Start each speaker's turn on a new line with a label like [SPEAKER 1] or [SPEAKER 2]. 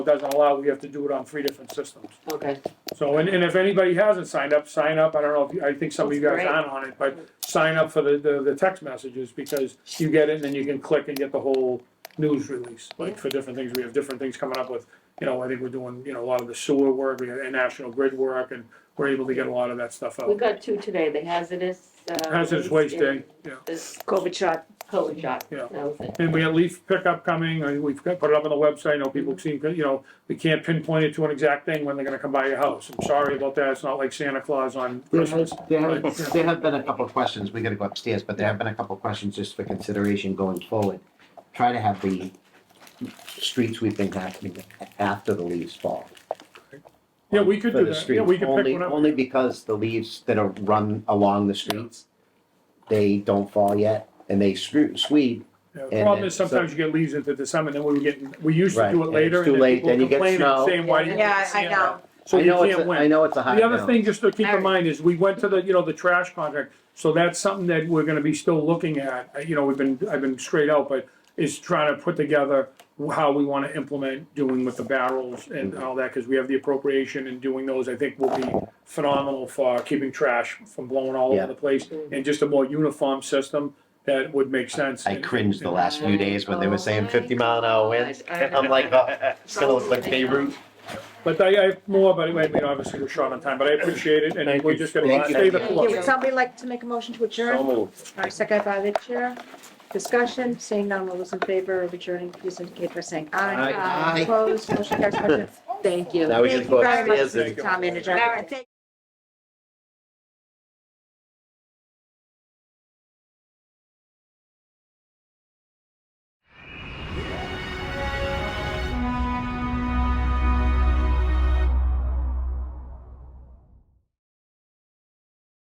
[SPEAKER 1] doesn't allow, we have to do it on three different systems.
[SPEAKER 2] Okay,
[SPEAKER 1] So, and, and if anybody hasn't signed up, sign up, I don't know, if you- I think some of you guys
[SPEAKER 2] That's
[SPEAKER 1] aren't on it, but sign up for the, the, the text messages, because you get it, and then you can click and get the whole news release, like for different things, we have different things coming up with, you know, I think we're doing, you know, a lot of the sewer work, we got national grid work, and we're able to get a lot of that stuff
[SPEAKER 2] we
[SPEAKER 1] out.
[SPEAKER 2] got two today, the hazardous, uh.
[SPEAKER 1] Hazardous waste day, yeah.
[SPEAKER 2] This
[SPEAKER 3] COVID shot.
[SPEAKER 2] COVID shot,
[SPEAKER 1] Yeah.
[SPEAKER 2] that was it.
[SPEAKER 1] And we had leaf pickup coming, and we've got- put it up on the website, I know people seem, you know, we can't pinpoint it to an exact thing when they're gonna come by your house. I'm sorry about that, it's not like Santa Claus on
[SPEAKER 4] There
[SPEAKER 1] Christmas.
[SPEAKER 4] has, there
[SPEAKER 1] Right.
[SPEAKER 4] have, there have been a couple of questions, we gotta go upstairs, but there have been a couple of questions just for consideration going forward. Try to have the street sweeping happening after the leaves fall.
[SPEAKER 1] Yeah, we could
[SPEAKER 4] For
[SPEAKER 1] do
[SPEAKER 4] the
[SPEAKER 1] that. Yeah,
[SPEAKER 4] streets.
[SPEAKER 1] we could pick
[SPEAKER 4] Only-
[SPEAKER 1] one up.
[SPEAKER 4] Only because the leaves that are run along the streets, they don't fall yet, and they screw, sweep.
[SPEAKER 1] Yeah, The
[SPEAKER 4] And
[SPEAKER 1] problem
[SPEAKER 4] then-
[SPEAKER 1] is sometimes you get leaves into December, then we were getting, we used to
[SPEAKER 4] Right,
[SPEAKER 1] do it
[SPEAKER 4] and
[SPEAKER 1] later
[SPEAKER 4] it's
[SPEAKER 1] and
[SPEAKER 4] too
[SPEAKER 1] then
[SPEAKER 4] late,
[SPEAKER 1] people
[SPEAKER 4] then you get
[SPEAKER 1] complaining
[SPEAKER 4] snow.
[SPEAKER 1] saying, why didn't you?
[SPEAKER 3] Yeah,
[SPEAKER 1] get
[SPEAKER 3] I
[SPEAKER 1] Santa?"
[SPEAKER 3] know.
[SPEAKER 1] So
[SPEAKER 4] I
[SPEAKER 1] you
[SPEAKER 4] know it's
[SPEAKER 1] can't
[SPEAKER 4] a-
[SPEAKER 1] win.
[SPEAKER 4] I know it's a high
[SPEAKER 1] The other
[SPEAKER 4] note.
[SPEAKER 1] thing, just to keep in
[SPEAKER 3] Alright.
[SPEAKER 1] mind, is we went to the, you know, the trash contract, so that's something that we're gonna be still looking at, Uh, you know, we've been, I've been straight out, but is trying to put together how we wanna implement doing with the barrels and all that, cause we have the appropriation and doing those, I think will be phenomenal for keeping trash from blowing all
[SPEAKER 4] Yeah.
[SPEAKER 1] over the place, and just a more uniform system that would make sense.
[SPEAKER 4] I
[SPEAKER 1] And-
[SPEAKER 4] cringed the last few days when they were saying
[SPEAKER 2] Oh
[SPEAKER 4] fifty
[SPEAKER 2] my
[SPEAKER 4] mile an hour winds,
[SPEAKER 2] God, I
[SPEAKER 4] and I'm
[SPEAKER 2] know.
[SPEAKER 4] like, oh, it's gonna look like Beirut.
[SPEAKER 1] But I, I have more, but anyway, I mean, obviously we're short on time, but I appreciate it, and
[SPEAKER 5] Thank
[SPEAKER 1] we're
[SPEAKER 5] you.
[SPEAKER 1] just gonna
[SPEAKER 4] Thank
[SPEAKER 1] stay the
[SPEAKER 2] you.
[SPEAKER 1] course.
[SPEAKER 2] you.
[SPEAKER 3] Would somebody like to make a motion to adjourn? All right, second by the chair. Discussion, seeing none, all those in favor of adjourning, please indicate by saying
[SPEAKER 4] Aye.
[SPEAKER 3] aye.
[SPEAKER 4] Aye.
[SPEAKER 3] Opposed, motion carries. Thank you.
[SPEAKER 4] Now we
[SPEAKER 3] Thank
[SPEAKER 4] can
[SPEAKER 3] you
[SPEAKER 4] go
[SPEAKER 3] very much,
[SPEAKER 4] upstairs and-
[SPEAKER 3] Mr. Town Manager.
[SPEAKER 2] All right.
[SPEAKER 3] Thank-